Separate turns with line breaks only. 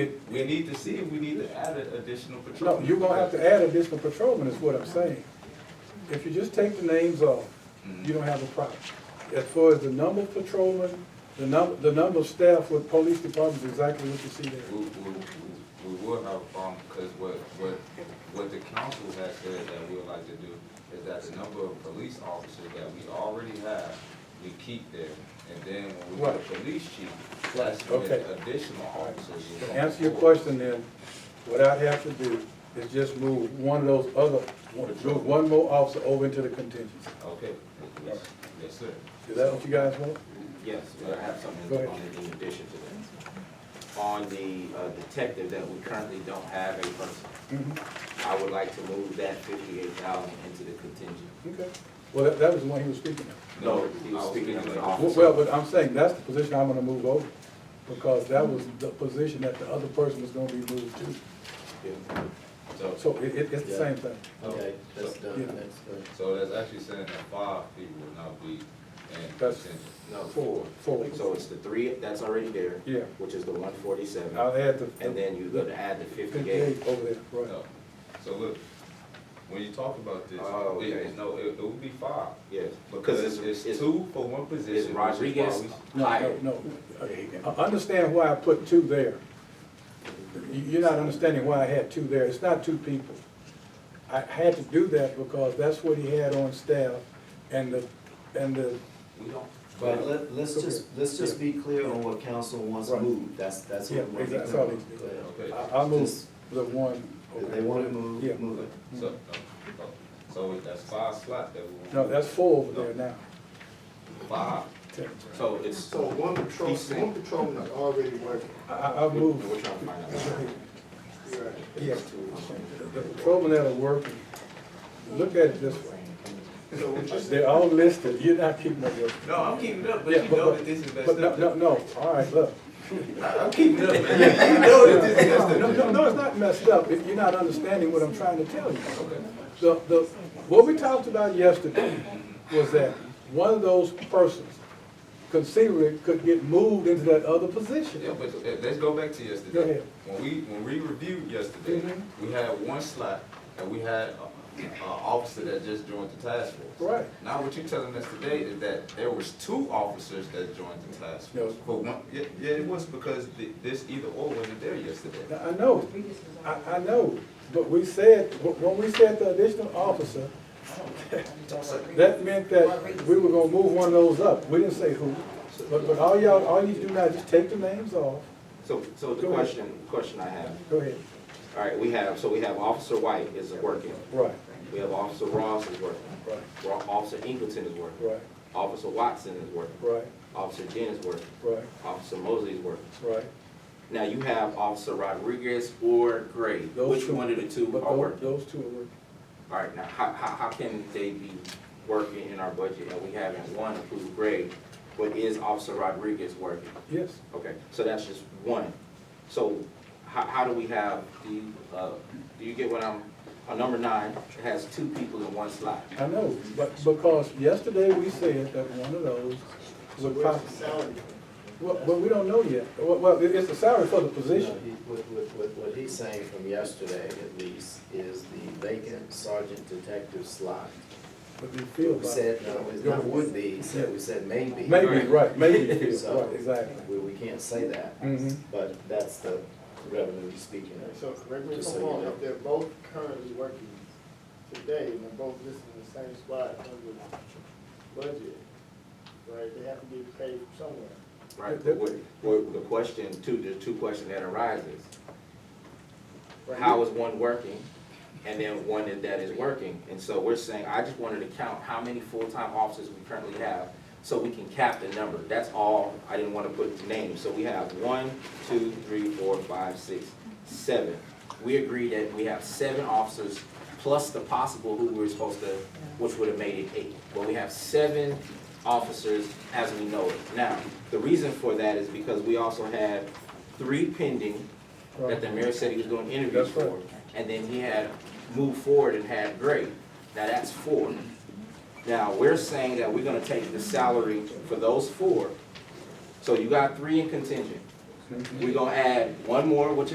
We need to see if we need to add an additional
No,
patrol.
you're gonna have to add additional patrolmen, is what I'm saying. If you just take the names off, you don't have a problem. As far as the number of patrolmen, the number, the number of staff with police departments, exactly what you see
We,
there.
we, we- we will have a problem, because what, what, what the council has said that we would like to do is that the number of police officers that we already have, we keep there. And then when we get a police chief, that's when
Okay.
additional officers. will
To
come
answer your
forward.
question then, what I'd have to do is just move one of those other, one- move one more officer over into the contingency.
Okay, yes, yes, sir.
Is that what you guys want?
Yes, but I have something
Go
on
ahead.
it in addition to that. On the uh, detective that we currently don't have a person, I would like to move that fifty-eight thousand into the contingent.
Okay. Well, that, that was the one he was speaking of.
No, he was speaking of an officer.
Well, but I'm saying that's the position I'm gonna move over, because that was the position that the other person was gonna be moved to.
Yeah. So,
So it, it, it's the same thing.
Okay, that's
Yeah.
done, that's good.
So that's actually saying that five people will not be in
That's-
contention.
no, four.
Four.
So it's the three that's already there.
Yeah.
Which is the one forty-seven,
I'll add the.
and then you're gonna add the fifty-eight.
Fifty-eight over there, right.
No. So look, when you talk about this,
Oh,
it-
okay.
no, it, it would be five.
Yes,
Because it's, it's two for one position.
Is
which is why
Rodriguez
we-
No,
hired?
no, I I understand why I put two there. You- You're not understanding why I had two there, it's not two people. I had to do that because that's what he had on staff, and the, and the,
We don't.
But let, let's just, let's just be clear on what council wants
Right.
moved, that's, that's
Yeah,
what we want to
that's all
do.
it is.
Go ahead.
Okay,
I, I moved the one.
If they want it
Yeah.
moved, move it.
so, no, no. so that's five slot that we want.
No, that's four over there now.
Five.
So it's,
So one patrol,
He's saying-
one patrolman is already working.
I, I I
we're
moved,
trying to find out.
Right.
yeah, the patrolmen that are working, look at it this way.
So we just,
They're all listed, you're not keeping up with.
No, I'm keeping up,
Yeah, But no, no, no, all right, look.
I'm keeping up, man. You know that this is messed
No,
up.
no, no, it's not messed up, If you're not understanding what I'm trying to tell you. The, the, what we talked about yesterday was that one of those persons conceivably could get moved into that other position.
Yeah, but uh, let's go back to yesterday.
Go ahead.
When we, when we reviewed yesterday, we had one slot, and we had uh, an officer that just joined the task force.
Right.
Now, what you're telling us today is that there was two officers that joined the task force.
No.
But one, yeah, yeah, it was because th- this either or wasn't there yesterday.
Now, I know, I, I know, but we said, when we said the additional officer, that meant that we were gonna move one of those up. We didn't say who, but, but all y'all, all you do now is just take the names off.
so, so the
Go ahead.
question, question I have,
Go ahead.
all right, we have, so we have Officer White is working,
Right,
we have Officer Ross is working,
right,
Ro- Officer Ingleton is working,
right,
Officer Watson is working,
right,
Officer Jen is working,
right,
Officer Mosley is working.
right.
Now you have Officer Rodriguez or Gray,
Those
which one of the two
But
are
tho-
working?
Those two are working.
All right, now, how, how, how can they be working in our budget and we having one approved grade, but is Officer Rodriguez working?
Yes,
Okay, so that's just one. So how, how do we have the, uh, do you get what I'm, on number nine, it has two people in one slot.
I know, but because yesterday we said that one of those would
where's
probably,
the salary?
well, well, we don't know yet. Well, Well, it- it's the salary for the
No, he-
position.
What, what, what- what he's saying from yesterday at least is the vacant sergeant detective slot.
But we feel
We
about
said,
it.
no, it's not would be, he said, we said maybe.
Maybe, right, maybe, we feel,
So,
right, exactly.
We, we can't say that,
Mhm.
but that's the revenue speaking of.
So correct me if
Just so
I'm
you
wrong,
know.
if they're both currently working today and they're both listed in the same spot under budget, right, they have to be paid somewhere.
Right, but what, what, the question, two, the two question that arises,
right?
how is one working? And then one that- that is working, and so we're saying, I just wanted to count how many full-time officers we currently have, so we can cap the number, that's all, I didn't wanna put names, so we have one, two, three, four, five, six, seven. We agree that we have seven officers, plus the possible who we were supposed to, which would have made it eight, but we have seven officers as we know it. Now, the reason for that is because we also have three pending that the mayor said he was doing interviews
That's right.
for. And then he had moved forward and had Gray. Now that's four. Now, we're saying that we're gonna take the salary for those four. So you got three in contingent. We're gonna add one more, which